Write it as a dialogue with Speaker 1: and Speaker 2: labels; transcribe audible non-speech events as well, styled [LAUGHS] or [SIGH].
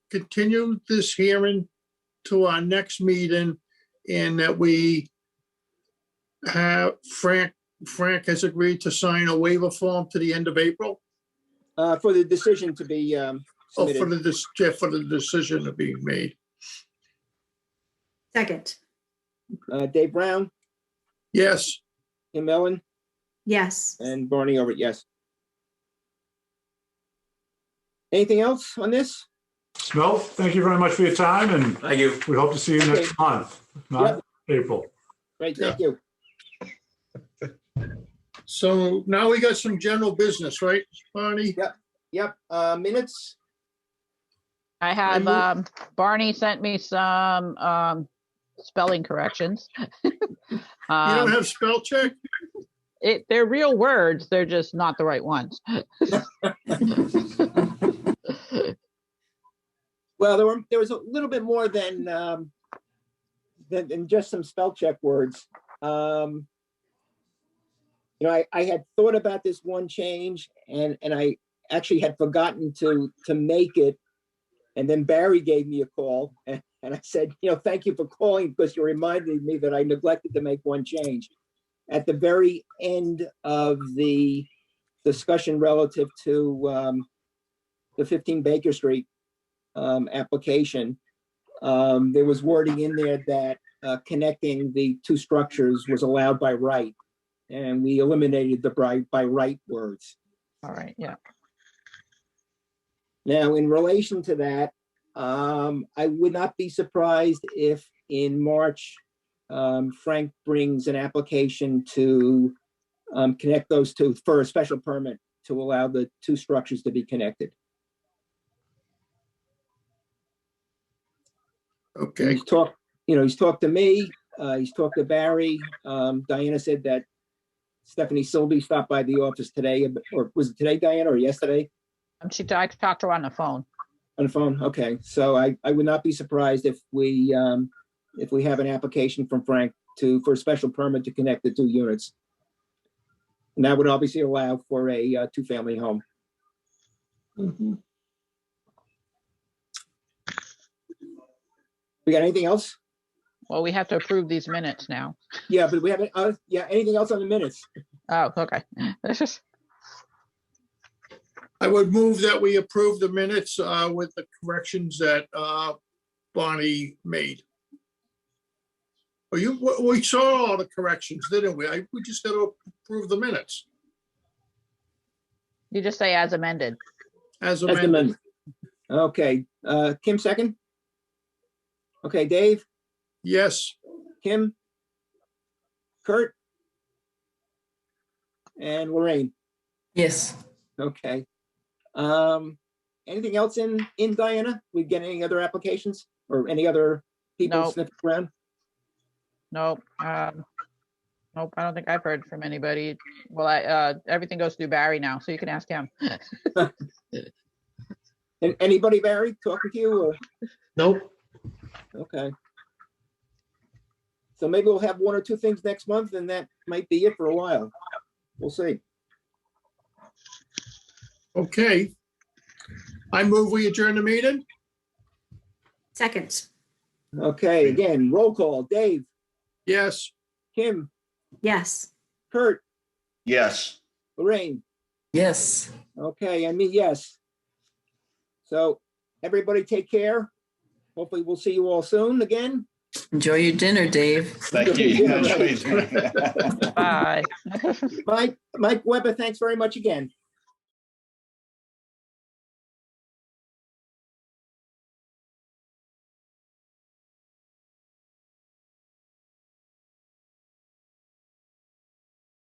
Speaker 1: continue this hearing to our next meeting and that we have Frank, Frank has agreed to sign a waiver form to the end of April.
Speaker 2: Uh, for the decision to be, um,
Speaker 1: Oh, for
Speaker 2: submitted.
Speaker 1: the, dis- yeah, for the decision to be made.
Speaker 3: Second,
Speaker 2: Uh, Dave Brown,
Speaker 1: Yes,
Speaker 2: Tim Ellen,
Speaker 3: yes.
Speaker 2: and Barney Over. yes. Anything else on this?
Speaker 4: No, thank you very much for your time, and
Speaker 5: Thank you.
Speaker 4: we hope to see you next
Speaker 2: Okay.
Speaker 4: month, not April.
Speaker 2: Great, thank you.
Speaker 1: so now we got some general business, right, Barney?
Speaker 2: Yep, uh, minutes,
Speaker 6: I have,
Speaker 2: you-
Speaker 6: um, Barney sent me some, um, spelling corrections. [LAUGHS]
Speaker 1: You don't
Speaker 6: Um,
Speaker 1: have spell check?
Speaker 6: it, they're real words, they're just not the right ones.
Speaker 2: well, there were, there was a little bit more than, um, than, than just some spell check words. Um, you know, I, I had thought about this one change and, and I actually had forgotten to, to make it. And then Barry gave me a call [LAUGHS] and, and I said, you know, thank you for calling because you reminded me that I neglected to make one change. At the very end of the discussion relative to, um, the fifteen Baker Street, um, application, um, there was wording in there that, uh, connecting the two structures was allowed by right. And we eliminated the by, by right words.
Speaker 6: All right, yeah.
Speaker 2: Now, in relation to that, um, I would not be surprised if in March, um, Frank brings an application to, um, connect those two for a special permit to allow the two structures to be connected.
Speaker 1: Okay,
Speaker 2: He's talked, you know, he's talked to me, uh, he's talked to Barry. Um, Diana said that Stephanie Silby stopped by the office today, or was it today, Diana, or yesterday
Speaker 6: And Um, she, I talked to her on the phone.
Speaker 2: on the phone? Okay, so I, I would not be surprised if we, um, if we have an application from Frank to, for a special permit to connect the two units. And that would obviously allow for a, uh, two-family home. We got anything else?
Speaker 6: Well, we have to approve these minutes now.
Speaker 2: Yeah, but we haven't, uh, yeah, anything else on the minutes?
Speaker 6: Oh, okay. [LAUGHS] This is,
Speaker 1: I would move that we approve the minutes uh, with the corrections that uh, Bonnie made. Oh, you, we- we saw all the corrections, didn't we? I- We just got to approve the minutes
Speaker 6: you just say as amended.
Speaker 1: as
Speaker 2: As
Speaker 1: amended.
Speaker 2: amended. Okay, uh, Kim second? Okay, Dave,
Speaker 1: Yes,
Speaker 2: Kim? Kurt? And Lorraine,
Speaker 7: Yes,
Speaker 2: okay. Um, anything else in, in Diana? We get any other applications or any other people
Speaker 6: No.
Speaker 2: sniffing around?
Speaker 6: Nope. Um, nope, I don't think I've heard from anybody. Well, I, uh, everything goes through Barry now, so you can ask him.
Speaker 2: And anybody, Barry, talking to you or,
Speaker 5: Nope.
Speaker 2: okay. So maybe we'll have one or two things next month and that might be it for a while. We'll see.
Speaker 1: okay. I move we adjourn the meeting.
Speaker 3: Second,
Speaker 2: Okay, again, roll call, Dave,
Speaker 1: Yes.
Speaker 2: Kim,
Speaker 3: yes.
Speaker 2: Kurt,
Speaker 5: Yes.
Speaker 2: Lorraine,
Speaker 7: yes.
Speaker 2: okay, I mean, yes. So everybody take care. Hopefully we'll see you all soon again.
Speaker 7: Enjoy your dinner, Dave.
Speaker 5: Thank you.
Speaker 2: Yeah, right.
Speaker 6: Bye.
Speaker 2: Mike, Mike Weber, thanks very much again.